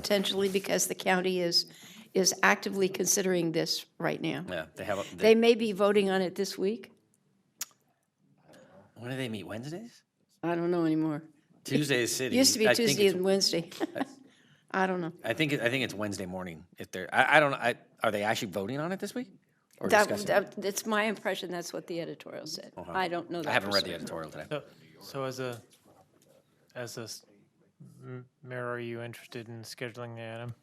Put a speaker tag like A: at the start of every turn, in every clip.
A: potentially because the county is, is actively considering this right now.
B: Yeah, they have, a-
A: They
B: they,
A: may be voting on it this week.
B: when do they meet, Wednesdays?
A: I don't know anymore.
B: Tuesday is city.
A: Used to be
B: I think
A: Tuesday
B: it's-
A: and Wednesday. I don't know.
B: I think, it- I think it's Wednesday morning if they're, I, I don't, know, I, are they actually voting on it this week? Or
A: That,
B: discussing? it? Uh-huh.
A: that, it's my impression that's what the editorial said. I don't know that.
B: I haven't
A: for
B: read the
A: certain.
B: editorial today.
C: So- So as a, as a s- m- mayor, are you interested in scheduling the item?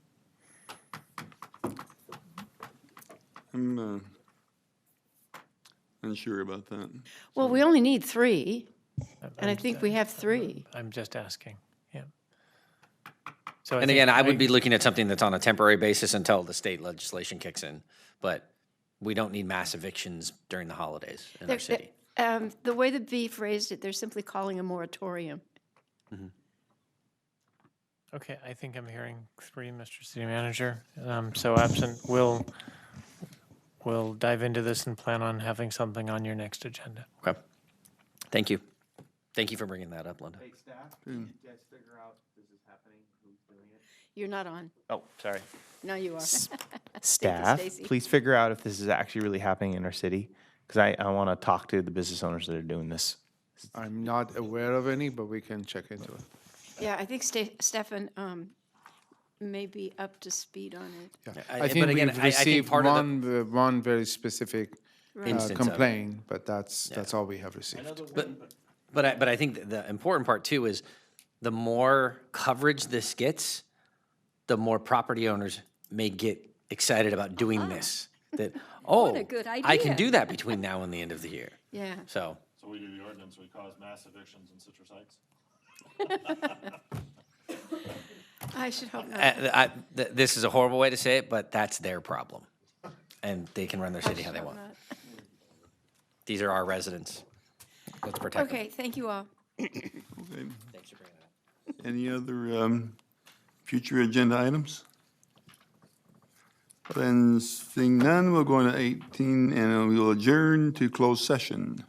D: I'm uh, unsure about that.
A: Well, we only need three, and I think we have three.
C: I'm just asking, yeah. So
B: And again, I would be looking at something that's on a temporary basis until the state legislation kicks in. But we don't need mass evictions during the holidays in our
A: They're-
B: city.
A: Um, the way the B phrased it, they're simply calling a moratorium.
C: Okay, I think I'm hearing three, Mr. City Manager. Um, So absent, we'll, we'll dive into this and plan on having something on your next agenda.
B: Okay. Thank you. Thank you for bringing that up, Linda.
A: You're not on.
E: Oh, sorry.
A: No, you are.
E: Staff,
A: Stacy.
E: please figure out if this is actually really happening in our city, because I, I want to talk to the business owners that are doing this.
F: I'm not aware of any, but we can check into it.
A: Yeah, I think Ste- Stefan um, may be up to speed on it.
F: Yeah.
B: I-
F: I
B: but
F: think
B: again,
F: we've
B: I- I think
F: received
B: part of the-
F: one, the- one very specific uh,
B: Instance of it.
F: complaint, but that's, that's all we have received.
B: But I, but I think the important part too is the more coverage this gets, the more property owners may get excited about doing this. That, oh,
A: Ah. good
B: I can
A: idea."
B: do that between now and the end of the year.
A: Yeah.
B: So,
G: So we do the ordinance, we cause mass evictions in Citrus Heights?
A: I should hope
B: uh,
A: not.
B: I, th- this is a horrible way to say it, but that's their problem. And they can run their city how they want. These are our residents. Let's protect them.
A: Okay, thank you all.
D: Any other um, future agenda items? Then seeing none, we'll go into 18 and we will adjourn to closed session.